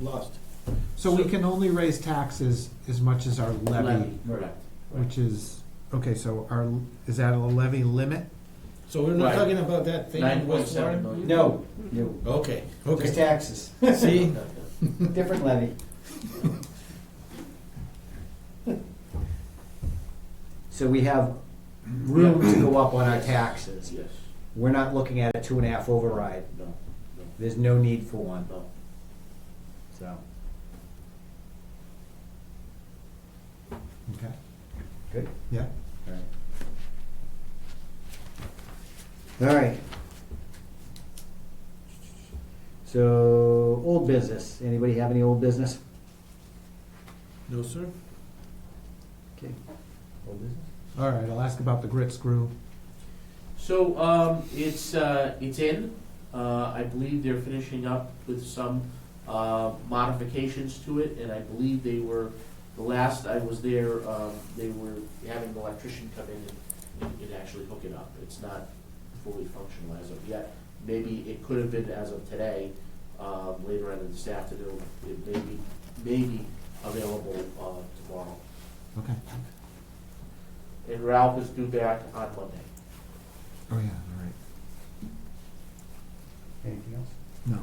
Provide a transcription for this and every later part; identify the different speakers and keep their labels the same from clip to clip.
Speaker 1: lost.
Speaker 2: So we can only raise taxes as much as our levy,
Speaker 1: Right.
Speaker 2: which is, okay, so our, is that a levy limit?
Speaker 1: So we're not
Speaker 3: Right.
Speaker 1: talking about that thing in West Warren?
Speaker 3: No, no,
Speaker 1: Okay,
Speaker 3: just
Speaker 1: okay.
Speaker 3: taxes,
Speaker 1: See,
Speaker 3: different levy. So we have room to go up on our taxes.
Speaker 4: Yes,
Speaker 3: We're not looking at a two and a half override.
Speaker 4: no,
Speaker 3: There's no need for one,
Speaker 4: no.
Speaker 3: so.
Speaker 2: Okay.
Speaker 3: Good.
Speaker 2: Yeah,
Speaker 3: All right. So, old business. Anybody have any old business?
Speaker 1: no, sir?
Speaker 3: Okay. Old business?
Speaker 2: all right, I'll ask about the grit screw.
Speaker 4: So, um, it's, uh, it's in, uh, I believe they're finishing up with some, uh, modifications to it, and I believe they were, the last I was there, um, they were having an electrician come in and, and- and actually hook it up, it's not fully functional as of yet. Maybe it could have been as of today, um, later on in this afternoon, it may be, may be available, uh, tomorrow.
Speaker 2: Okay.
Speaker 4: And Ralph is due back on Monday.
Speaker 2: Oh, yeah, all right.
Speaker 3: Anything else?
Speaker 2: No.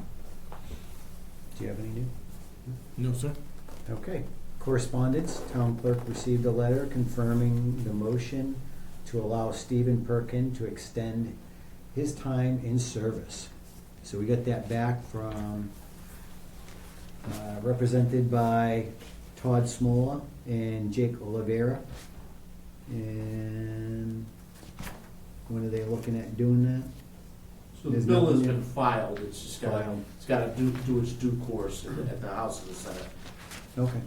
Speaker 3: Do you have any new?
Speaker 1: No, sir.
Speaker 3: Okay. Correspondence, town clerk received a letter confirming the motion to allow Stephen Perkin to extend his time in service. So we got that back from, uh, represented by Todd Smola and Jake Olivera. And when are they looking at doing that?
Speaker 4: So the
Speaker 3: There's
Speaker 4: bill has
Speaker 3: nothing
Speaker 4: been
Speaker 3: in-
Speaker 4: filed, it's just gotta,
Speaker 3: Filed.
Speaker 4: it's gotta do, do its due course in the- at the House and the Senate.
Speaker 3: Okay.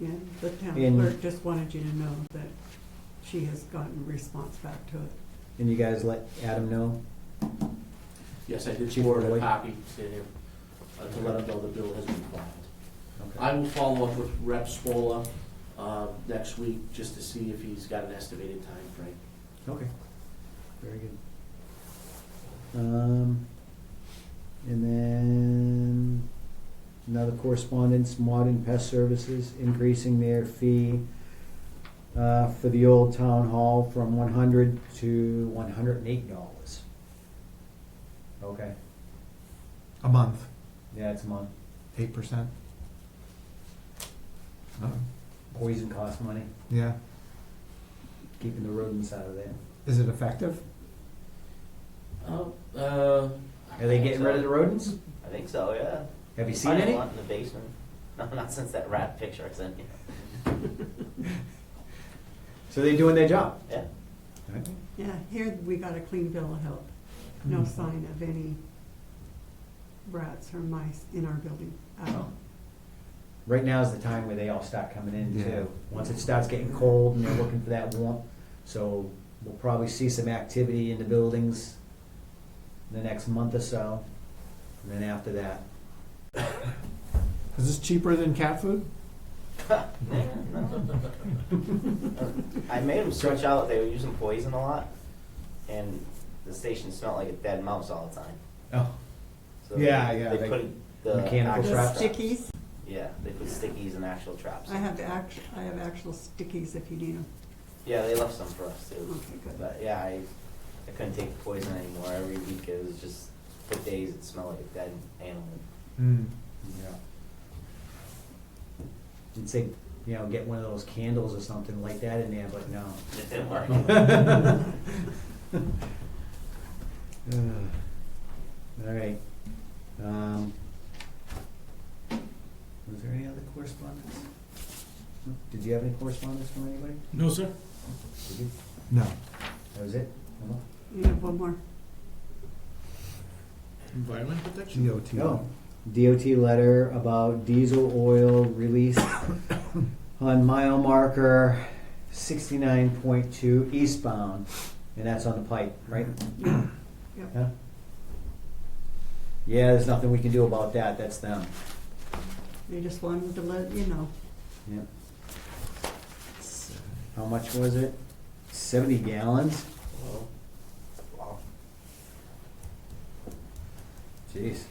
Speaker 5: Yeah, the town
Speaker 3: And-
Speaker 5: clerk just wanted you to know that she has gotten response back to it.
Speaker 3: And you guys let Adam know?
Speaker 4: Yes, I did
Speaker 3: Chief
Speaker 4: forward a
Speaker 3: Floyd.
Speaker 4: copy to him, uh, to let him know the bill has been filed.
Speaker 3: Okay.
Speaker 4: I will follow up with Rep. Spola, um, next week, just to see if he's got an estimated time frame.
Speaker 3: Okay, very good. Um, and then another correspondence, Modern Pest Services increasing their fee uh, for the old town hall from one hundred to one hundred and eight dollars. Okay,
Speaker 2: A month,
Speaker 3: yeah, it's a month.
Speaker 2: eight percent. Uh,
Speaker 3: Poison costs money,
Speaker 2: Yeah,
Speaker 3: keeping the rodents out of there.
Speaker 2: is it effective?
Speaker 4: Oh, uh.
Speaker 3: Are they getting rid of the rodents?
Speaker 6: I think so, Oh, yeah.
Speaker 3: Have you
Speaker 6: I
Speaker 3: seen
Speaker 6: didn't
Speaker 3: any?
Speaker 6: want in the basement. No, not since that rat picture I sent you.
Speaker 3: So they're doing their job?
Speaker 6: Yeah.
Speaker 5: Yeah, here we got a clean bill of health. No
Speaker 2: Mhm.
Speaker 5: sign of any rats or mice in our building at all.
Speaker 3: right now is the time where they all start coming in
Speaker 2: Yeah.
Speaker 3: too. Once it starts getting cold and they're looking for that warmth, so we'll probably see some activity in the buildings in the next month or so. And then after that,
Speaker 2: Is this cheaper than cat food?
Speaker 6: Yeah, no. I made them switch out. They were using poison a lot, and the station smelled like a dead mouse all the time.
Speaker 3: oh,
Speaker 6: So
Speaker 3: Yeah,
Speaker 6: they,
Speaker 3: yeah,
Speaker 6: They,
Speaker 3: they-
Speaker 6: put the
Speaker 3: mechanical
Speaker 6: actual
Speaker 5: The
Speaker 3: traps.
Speaker 5: stickies,
Speaker 6: Yeah, they put stickies and actual traps.
Speaker 5: I have act, I have actual stickies if you need them.
Speaker 6: Yeah, they left some for us too.
Speaker 5: Oh, Okay, good.
Speaker 6: But yeah, I, I couldn't take the poison anymore. Every week it was just for days. It smelled like a dead animal.
Speaker 2: Mm.
Speaker 3: yeah. You'd say, you know, get one of those candles or something like that in there, but no.
Speaker 6: It didn't work.
Speaker 3: All right. Um, was there any other correspondence? Did you have any correspondence from anybody?
Speaker 1: No, sir?
Speaker 3: Did you?
Speaker 2: No.
Speaker 3: That was it? No more?
Speaker 5: You have one more.
Speaker 1: Environment protection?
Speaker 2: GOT.
Speaker 3: No. DOT letter about diesel oil released on mile marker sixty-nine point two eastbound, and that's on the pipe, right?
Speaker 5: Yep.
Speaker 3: Yeah. Yeah, there's nothing we can do about that, that's them,
Speaker 5: They just wanted to let you know.
Speaker 3: yep. How much was it? Seventy gallons?
Speaker 6: Well, wow.
Speaker 3: Jeez.